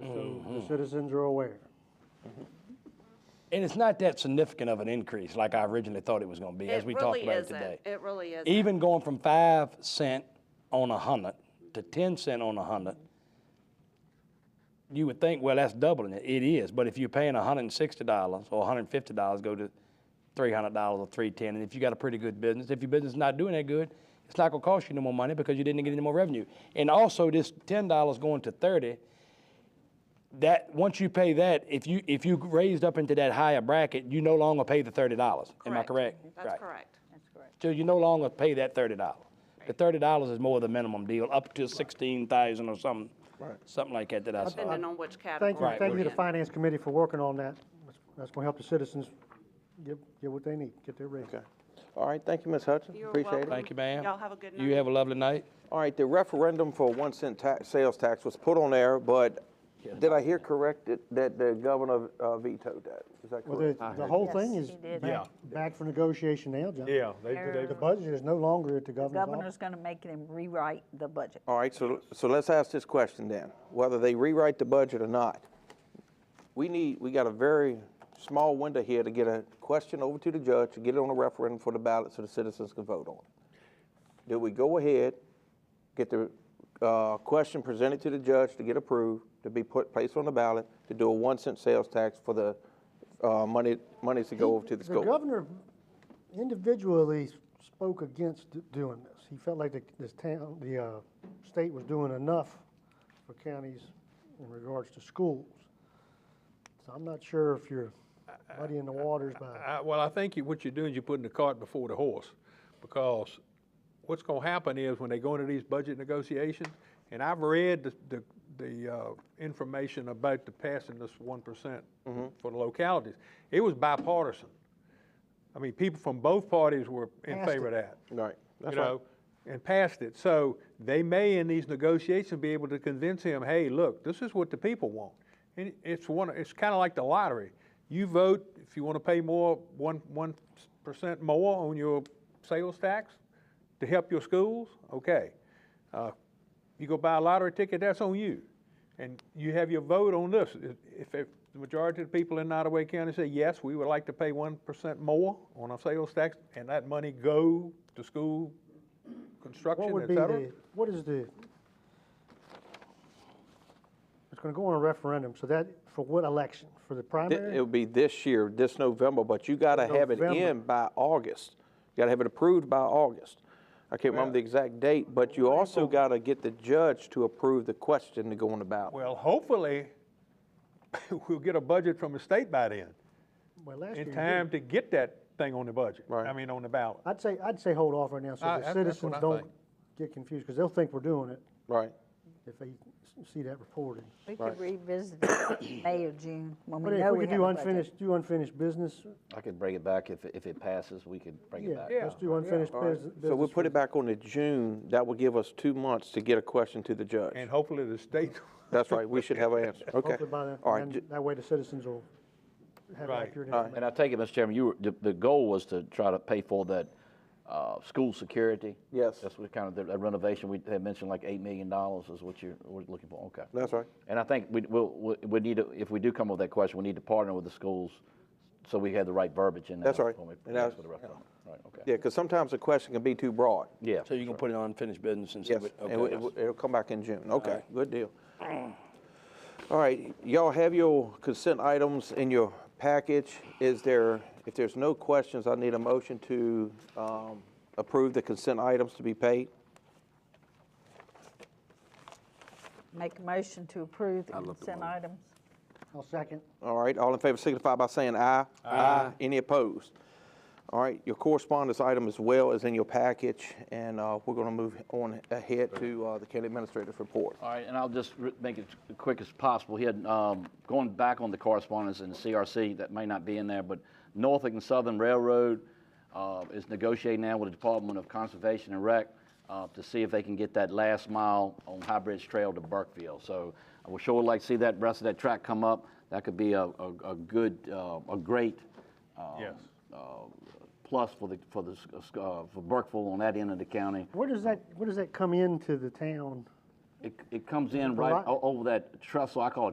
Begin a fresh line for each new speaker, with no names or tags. Mm-hmm.
citizens are aware.
And it's not that significant of an increase like I originally thought it was going to be, as
It
we talked
really
about it
isn't.
today.
It really isn't.
Even going from five cent on a hundred to ten cent on a hundred, you would think, well, that's doubling it. It is, but if you're paying hundred and sixty dollars or hundred and fifty dollars, go to three hundred dollars or three ten. And if you got a pretty good business, if your business is not doing that good, it's not gonna cost you no more money because you didn't get any more revenue. And also, this ten dollars going to thirty, that once you pay that, if you if you raised up into that higher bracket, you no longer pay the thirty dollars. Am I correct?
That's
Right.
correct.
So you no longer pay that thirty dollars. The thirty dollars is more the minimum deal, up to sixteen thousand or something, something like that that I saw.
Depending on which
Thank you,
category.
thank
we're
you to
in.
Finance Committee for working on that. That's- That's going to help the citizens get, get what they need, get their raise.
Okay. All right, thank you, Ms. Hudson.
You're
Appreciate
welcome.
it.
Thank you, ma'am.
Y'all have a good
You
night.
have a lovely night.
All right, the referendum for one cent tax, sales tax was put on there, but did I hear correct that- that the governor uh, vetoed that? Is that
Well, the,
correct?
the whole
Yes,
thing is
he did.
back, back for negotiation now, John.
Yeah, they, they,
The budget is no longer at the
The
governor's office.
governor's gonna make them rewrite the budget.
All right, so, so let's ask this question then, whether they rewrite the budget or not. We need, we got a very small window here to get a question over to the judge, to get it on a referendum for the ballot so the citizens can vote on it. Do we go ahead, get the uh, question presented to the judge to get approved, to be put, placed on the ballot, to do a one cent sales tax for the uh, money, monies to go over to the
The
school?
governor individually spoke against d- doing this. He felt like the, this town, the, uh, state was doing enough for counties in regards to schools. So I'm not sure if you're muddying the waters by,
I, well, I think you, what you're doing is you're putting the cart before the horse, because what's going to happen is when they go into these budget negotiations, and I've read the, the, the uh, information about the passing this one
Mm-hmm.
for the localities. It was bipartisan. I mean, people from both parties were in
Passed
favor of that.
Right, that's
you
right.
know, and passed it. So they may, in these negotiations, be able to convince him, hey, look, this is what the people want. And it's one, it's kind of like the lottery. You vote if you want to pay more, one one percent more on your sales tax to help your schools. Okay, uh, you go buy a lottery ticket, that's on you. And you have your vote on this. If, if the majority of the people in Nottaway County say, yes, we would like to pay one percent more on our sales tax, and that money go to school
what
construction,
would
et
be
cetera.
the, what is the? It's gonna go on a referendum, so that, for what election? For the
Th-
primary?
It'll be this year, this November, but you gotta have it
November.
in by August. You gotta have it approved by August. I can't remember the exact date, but you also gotta get the judge to approve the question to go on the ballot.
Well, hopefully, we'll get a budget from the state by then,
Well, last year
in
you
time
did.
to get that thing on the budget,
Right.
I mean, on the ballot.
I'd say, I'd say hold off right now, so
I-
the
that's- that's
citizens
what I
don't
think.
get confused, because they'll think we're doing it
Right.
if they s- see that reported.
We could revisit it in May or June, when
But
we
if
know
we
we
could
have
do
a budget.
unfinished, do unfinished business,
I could bring it back if, it- if it passes, we could bring it
yeah,
back.
let's do unfinished business.
So we'll put it back on to June. That will give us two months to get a question to the judge.
And hopefully the state,
That's right, we should have an answer, okay.
Hopefully by then,
All right,
and
ju-
that way the citizens will have
Right.
accurate
All right.
information.
Uh, And I take it, Mr. Chairman, you were, the, the goal was to try to pay for that, uh, school security?
Yes.
That's what kind of, the renovation, we had mentioned like eight million dollars is what you're, we're looking for, okay.
that's right.
And I think we, we'll, we- we need to, if we do come up with that question, we need to partner with the schools so we have the right verbiage in there.
That's right.
when we-
And I-
for the referendum. Right, okay.
Yeah, because sometimes the question can be too broad.
Yeah.
So you can put it on unfinished business and see
Yes,
what,
and it-
okay.
it- it'll come back in June. Okay, good deal. All right, y'all have your consent items in your package. Is there, if there's no questions, I need a motion to um, approve the consent items to be paid.
Make a motion to approve the consent items.
I'll second.
All right, all in favor signify by saying aye. Aye. Any opposed? All right, your correspondence item as well is in your package, and uh, we're going to move on ahead to uh, the county administrator's report.
All right, and I'll just r- make it as quick as possible. He had, um, going back on the correspondence in the CRC, that may not be in there, but Norfolk and Southern Railroad uh, is negotiating now with the Department of Conservation and Rec uh, to see if they can get that last mile on High Bridge Trail to Burkeville. So I would sure like to see that rest of that track come up. That could be a, a, a good, uh, a great um,
Yes.
uh, plus for the, for the, s- uh, for Burkeville on that end of the county.
Where does that, where does that come into the town?
It, it comes in right
Right.
o- over that trestle, I call it